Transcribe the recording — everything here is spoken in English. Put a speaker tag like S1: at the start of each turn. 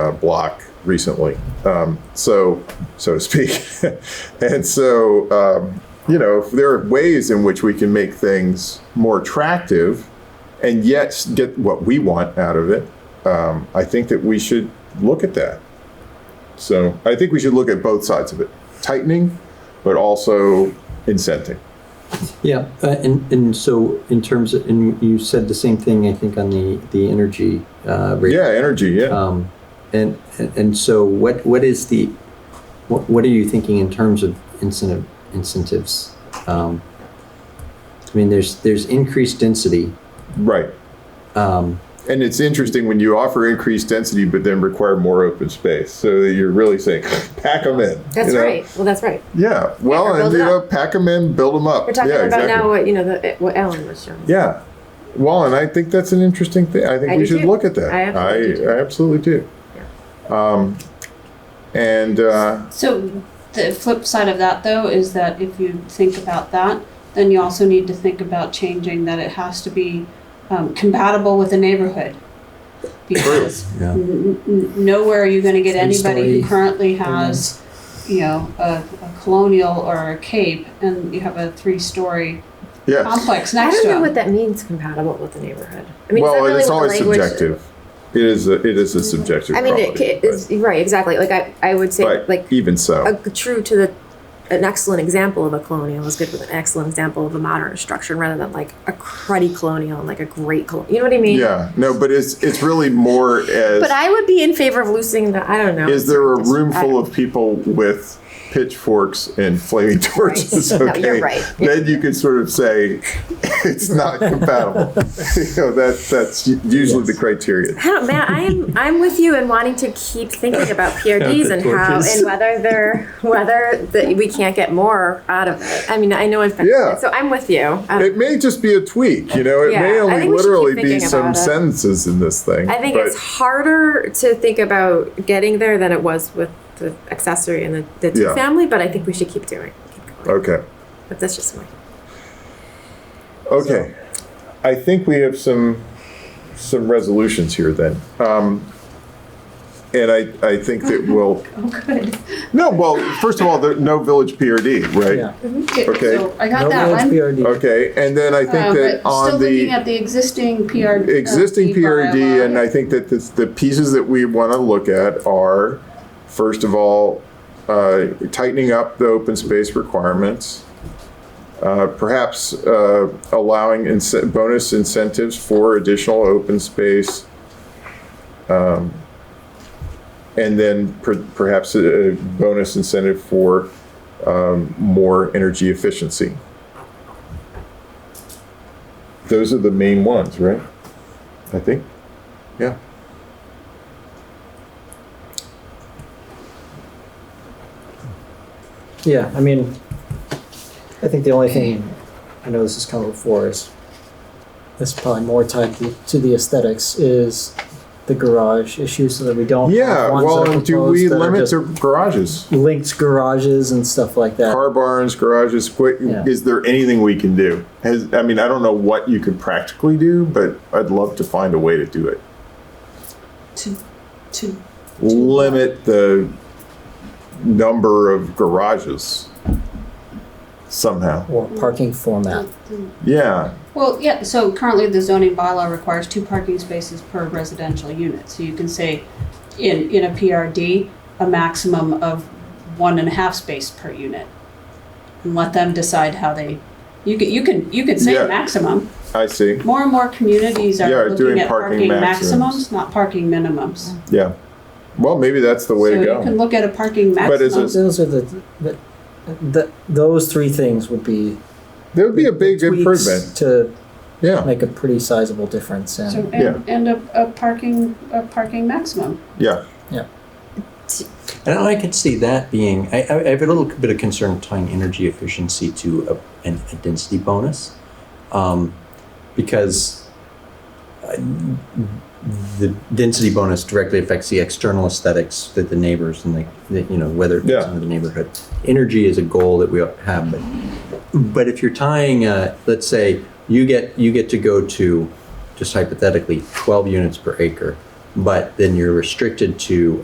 S1: uh, block recently, um, so so to speak. and so, um, you know, if there are ways in which we can make things more attractive and yet get what we want out of it. Um, I think that we should look at that. So I think we should look at both sides of it, tightening, but also incenting.
S2: Yeah, uh, and, and so in terms of, and you said the same thing, I think, on the, the energy uh, rate.
S1: Yeah, energy. Yeah.
S2: Um, and, and and so what, what is the, what, what are you thinking in terms of incentive, incentives? Um, I mean, there's, there's increased density.
S1: Right.
S2: Um,
S1: And it's interesting when you offer increased density, but then require more open space. So that you're really saying, pack them in.
S3: That's
S1: you know?
S3: right. Well, that's right.
S1: Yeah. Well,
S3: Yeah, or
S1: and
S3: build
S1: you
S3: it
S1: know,
S3: up.
S1: pack them in, build them up.
S3: We're talking
S1: yeah,
S3: about
S1: exactly.
S3: now what you know the what Ellen was showing.
S1: Yeah. Well, and I think that's an interesting thing. I think
S3: I
S1: we
S3: do
S1: should
S3: too.
S1: look at that.
S3: I absolutely do.
S1: I absolutely do. Um, and uh,
S4: So the flip side of that though is that if you think about that, then you also need to think about changing that it has to be um, compatible with the neighborhood. Because
S2: Yeah.
S4: n- n- nowhere are you gonna get anybody
S2: Three-story
S4: who currently has, you know, a, a colonial or a cape and you have a three-story
S1: yeah.
S4: complex
S3: Um, I
S4: next
S3: don't
S4: to
S3: know what
S4: them.
S3: that means compatible with the neighborhood. I mean,
S1: well,
S3: is
S1: it's
S3: that really
S1: always
S3: what the language? Mm-hmm.
S1: subjective. It is. A, it is a subjective.
S3: I mean, it,
S1: quality,
S3: it is, right, exactly. Like I, I would say,
S1: but, but
S3: like
S1: even so,
S3: a true to the, an excellent example of a colonial is good with an excellent example of a modern construction rather than like a cruddy colonial and like a great colonial. You know what I mean?
S1: yeah. No, but it's it's really more as
S3: But I would be in favor of loosening the. I don't know.
S1: is there a
S3: It's-
S1: room
S3: I
S1: full
S3: don't-
S1: of people with pitchforks and flaming torches?
S3: No,
S1: Okay,
S3: you're right.
S1: then you can sort of say it's not compatible. you know, that that's usually the criteria.
S3: I don't, Matt. Oh, I'm I'm with you in wanting to keep thinking about PRDs and how
S2: torches.
S3: and whether they're whether that we can't get more out of it. I mean, I know I've been
S1: Yeah.
S3: so I'm with you. Um,
S1: It may just be a tweak, you know. It
S3: Yeah,
S1: may
S3: I
S1: only
S3: think we should keep
S1: literally be
S3: thinking
S1: some
S3: about it.
S1: sentences in this thing.
S3: I think
S1: but-
S3: it's harder to think about getting there than it was with the accessory and the, the two
S1: Yeah.
S3: family. But I think we should keep doing. Keep going.
S1: okay.
S3: But that's just my.
S1: Okay, I think we have some, some resolutions here then. Um, And I, I think that
S3: Uh-huh.
S1: we'll,
S4: Oh, good.
S1: no, well, first of all, there, no village PRD, right? Okay.
S4: So I got
S2: No
S4: that
S2: large
S4: one.
S2: PRD.
S1: Okay, and then I
S4: Uh,
S1: think that
S4: but still
S1: on
S4: looking
S1: the
S4: at the existing uh, PR.
S1: existing
S4: E
S1: PRD, and I think that this- the pieces that we want to look at are, first of all, uh, tightening up the open space requirements. uh, perhaps uh, allowing ince- bonus incentives for additional open space. um, And then per- perhaps a a bonus incentive for um, more energy efficiency. Those are the main ones, right? I think, yeah.
S5: Yeah, I mean, I think the only thing, I know this has come before, is this is probably more tied to, to the aesthetics, is the garage issue so that we don't
S1: Yeah,
S5: have ones
S1: well,
S5: that are
S1: and do
S5: proposed
S1: we
S5: that are
S1: limit
S5: just
S1: to garages?
S5: linked garages and stuff like that.
S1: car barns, garages, quick,
S5: Yeah.
S1: is there anything we can do? Has, I mean, I don't know what you could practically do, but I'd love to find a way to do it.
S4: To, to
S1: Limit the number of garages somehow.
S5: or parking format.
S1: Yeah,
S4: Well, yeah, so currently the zoning bylaw requires two parking spaces per residential unit. So you can say in, in a PRD, a maximum of one and a half space per unit. And let them decide how they, you can, you can, you could say
S1: Yeah.
S4: maximum.
S1: I see.
S4: More and more communities
S1: Yeah,
S4: are
S1: doing
S4: looking at
S1: parking
S4: parking
S1: maximums.
S4: maximums, not parking minimums.
S1: Yeah. Well, maybe that's the way
S4: So
S1: to
S4: you can
S1: go.
S4: look at a parking
S1: But is
S4: maximum.
S5: Those are the, the, the those three things would be
S1: There would be a big
S5: tweaks
S1: improvement.
S5: to
S1: Yeah,
S5: make a pretty sizable difference. And
S4: So,
S1: Yeah.
S4: and, and a, a parking, a parking maximum.
S1: yeah.
S2: And I could see that being, I, I I have a little bit of concern tying energy efficiency to a, an, a density bonus. Um, because uh, the density bonus directly affects the external aesthetics that the neighbors and the, the you know, whether it's
S1: Yeah.
S2: in the neighborhood. Energy is a goal that we have, but but if you're tying, uh, let's say you get you get to go to, just hypothetically, 12 units per acre, but then you're restricted to